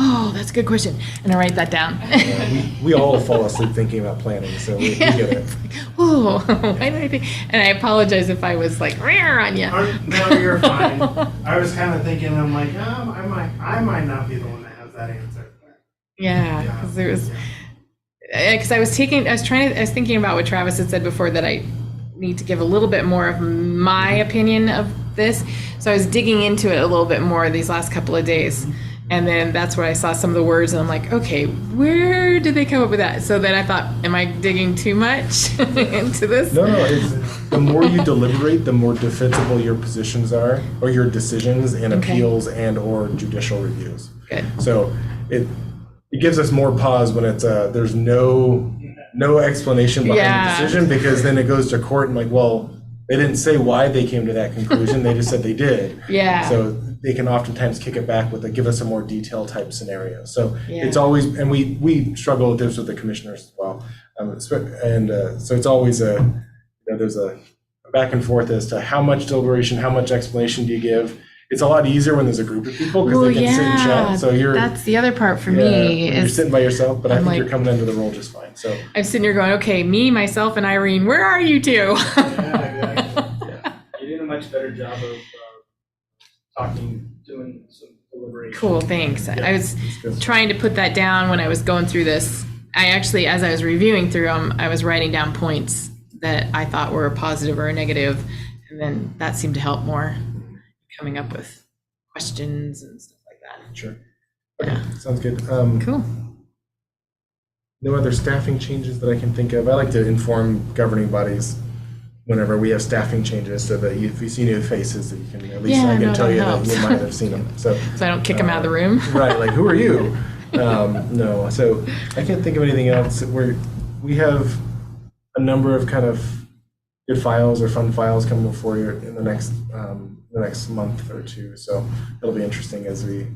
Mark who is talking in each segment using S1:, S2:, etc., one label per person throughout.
S1: Oh, that's a good question. And I write that down.
S2: Yeah, we- We all fall asleep thinking about planning, so we we get it.
S1: Whoa, why did I think? And I apologize if I was like rare on you.
S3: Or- No, you're fine. I was kind of thinking, I'm like, um, I might, I might not be the one that has that answer.
S1: yeah,
S3: Yeah.
S1: because there was because I was taking, I was trying to, I was thinking about what Travis had said before that I need to give a little bit more of my opinion of this. So I was digging into it a little bit more these last couple of days. And then that's where I saw some of the words, and I'm like, okay, where did they come up with that? So then I thought, am I digging too much into this?
S2: No, no, it's, the more you deliberate, the more defensible your positions are, or your decisions and
S1: Okay.
S2: appeals and/or judicial reviews.
S1: Good.
S2: So it, it gives us more pause when it's, uh, there's no, no explanation behind
S1: Yeah.
S2: the decision, because then it goes to court and like, well, they didn't say why they came to that conclusion, they just said they did.
S1: Yeah.
S2: So they can oftentimes kick it back with a, give us a more detailed type scenario. So it's
S1: Yeah.
S2: always, and we, we struggle with this with the commissioners as well. Um, it's- And uh, so it's always a, you know, there's a back and forth as to how much deliberation, how much explanation do you give? It's a lot easier when there's a group of people because
S1: Well,
S2: they can sit and
S1: yeah,
S2: chat. So you're,
S1: that's the other part for
S2: yeah,
S1: me
S2: you're
S1: is
S2: sitting by yourself, but I
S1: I'm
S2: think
S1: like-
S2: you're coming into the role just fine. So
S1: I'm sitting here going, okay, me, myself, and Irene, where are you two?
S4: You're doing a much better job of uh, talking, doing some deliberation.
S1: cool, thanks. I was
S2: it's good.
S1: trying to put that down when I was going through this. I actually, as I was reviewing through them, I was writing down points that I thought were a positive or a negative, and then that seemed to help more coming up with questions and stuff like that.
S2: Sure. Okay, sounds good. Um,
S1: Cool.
S2: No other staffing changes that I can think of. I like to inform governing bodies whenever we have staffing changes so that you- if you see new faces, that you can, at least
S1: Yeah,
S2: I
S1: no,
S2: can tell
S1: that
S2: you that
S1: helps.
S2: you might have seen them, so.
S1: So I don't kick them out of the room.
S2: Right, like, who are you? Um, No, so I can't think of anything else. We're, we have a number of kind of good files or fun files coming before you in the next, um, the next month or two. So it'll be interesting as we,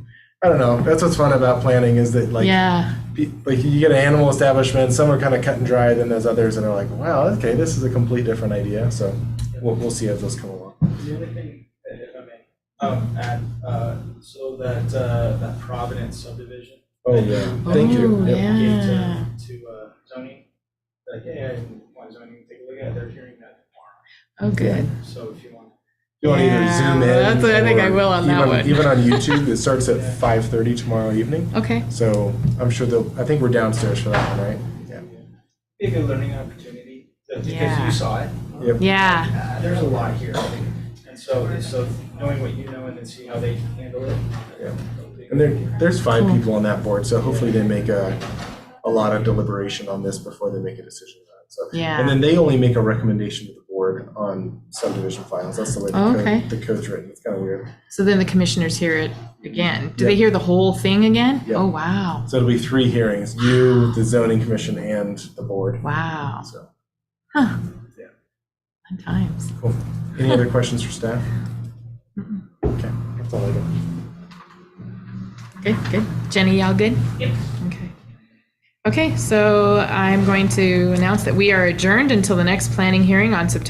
S2: I don't know, that's what's fun about planning is that like
S1: yeah.
S2: pe- like you get an animal establishment, some are kind of cut and dry, then there's others that are like, wow, okay, this is a complete different idea. So we'll, we'll see as those come along.
S4: The other thing, uh, if I may, um, add, uh, so that, uh, that Providence subdivision.
S2: Oh,
S4: that
S2: yeah.
S4: you
S2: Thank you.
S1: Oh,
S2: Yep.
S4: Gave
S1: yeah.
S4: to, to, uh, Tony, like, hey, I want zoning, to take a look at it, they're hearing that
S1: Oh, good.
S4: tomorrow, so if you want.
S2: You want to either
S1: Yeah,
S2: zoom in.
S1: that's what I think I
S2: or
S1: will on that
S2: even-
S1: one.
S2: Even on YouTube, it starts at 5.30 tomorrow evening.
S1: Okay.
S2: So I'm sure they'll, I think we're downstairs for that one, right? Yeah.
S4: Be a good learning opportunity, uh, because
S1: Yeah.
S4: you saw it.
S2: Yep.
S1: Yeah.
S4: Uh, There's a lot here, I think. and so, so knowing what you know and then see how they handle it.
S2: Yeah. And there, there's five people on that board, so hopefully they make a, a lot of deliberation on this before they make a decision on it. So,
S1: Yeah.
S2: and then they only make a recommendation to the board on subdivision files. That's the way the,
S1: Oh,
S2: code,
S1: okay.
S2: the code's written. It's kind of weird.
S1: So then the commissioners hear it again. Do they hear the whole thing again?
S2: Yeah.
S1: Oh, wow.
S2: So it'll be three hearings: you, the zoning commission, and the board.
S1: Wow.
S2: So,
S1: Fun times.
S2: cool. Any other questions for staff? Okay, that's all I got.
S1: Good, good. Jenny, y'all good? Yep. Okay. Okay, so I'm going to announce that we are adjourned until the next planning hearing on September.